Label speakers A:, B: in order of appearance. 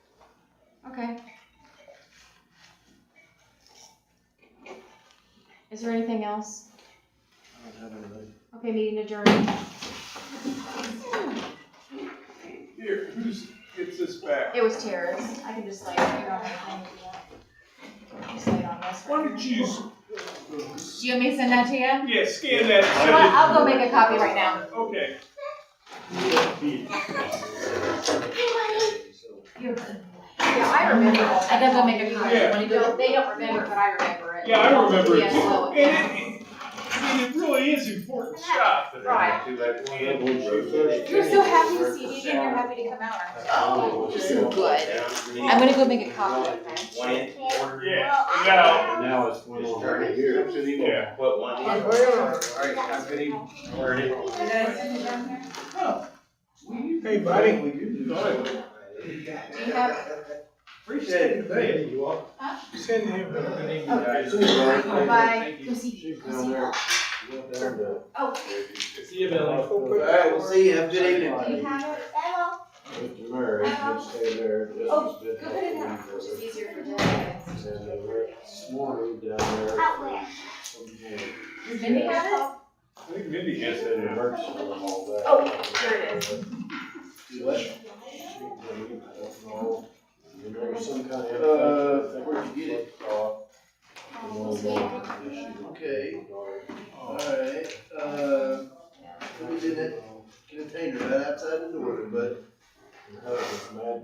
A: Okay. Is there anything else?
B: I don't have anything.
A: Okay, meeting adjourned.
C: Here, who's, gets this back?
A: It was Tara's. I can just lay it right on my thing. Just lay it on this.
C: Why don't you, s-
A: Do you want me to send that to you? You
C: yeah, scan that.
A: know what? I'll go make a copy right now.
C: Okay.
A: You're good. Yeah, I remember. I gotta go make a copy.
C: Yeah.
A: They don't- They don't remember, but I remember it.
C: Yeah, I remember it
A: Yeah,
C: too.
A: so-
C: And it, it- I mean, it really is important stuff.
A: Right.
D: You're so happy to see me again, you're happy to come out, aren't you?
A: Oh, you're so good. I'm gonna go make a copy of that.
C: Yeah, and now,
B: Now it's one
D: It's
B: on.
D: dirty here.
C: yeah.
D: What, one here? Alright, I'm gonna burn it.
E: Hey, buddy.
A: Do you have,
E: Appreciate it. Hey, you all.
A: Huh?
E: Send him.
A: bye, go see,
B: She's
A: go
B: down
A: see.
B: there. She went down to-
A: Oh.
C: See you,
D: Alright, we'll see you, have a good evening.
A: Do you have it? Hello.
B: Mr. Murray, just stay there. This
A: Oh,
B: is just-
A: Go ahead and have, it's just easier for Dylan.
B: And they were this morning down there.
F: Out where?
A: Does Mindy have it?
C: I think Mindy
B: Yes,
C: has
B: it
C: that.
B: works for them all day.
A: Oh, here it
B: is. You know, some kind of.
D: Uh, where'd you get it? Okay. Alright, uh, we did that container right outside the door, but
B: Mad